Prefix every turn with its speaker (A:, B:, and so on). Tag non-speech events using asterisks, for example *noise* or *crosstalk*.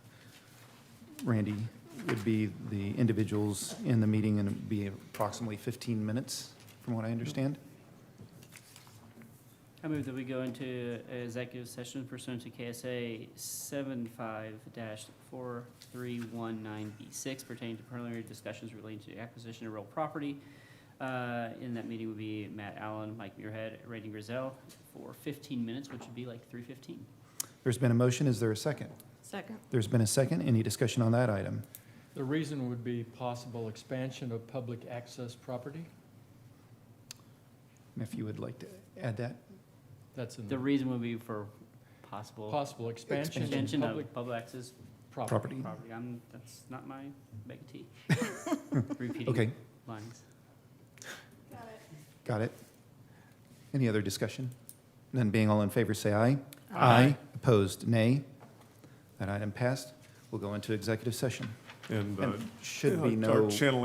A: Randy, would be the individuals in the meeting, and it'd be approximately 15 minutes, from what I understand.
B: I move that we go into executive session pursuant to KSA seven five dash four three one nine B six pertaining to preliminary discussions relating to the acquisition of real property. Uh, in that meeting would be Matt Allen, Mike Muirhead, Randy Griselle for fifteen minutes, which would be like three fifteen.
A: There's been a motion, is there a second?
C: Second.
A: There's been a second, any discussion on that item?
D: The reason would be possible expansion of public access property.
A: And If you would like to add that,
D: That's in
B: The
A: Mm.
D: the
B: reason would be for possible
D: possible expansion of
B: extension
D: public
B: of public access
D: property.
A: property.
B: property. I'm, that's not my bag
A: *laughs*
B: of tea. Repeating
A: Okay,
B: lines.
A: got it. Any other discussion? None being all in favor, say aye.
B: Aye.
A: Opposed, nay. That item passed. We'll go into executive session.
E: And uh,
A: And should be
E: our
A: no.
E: channel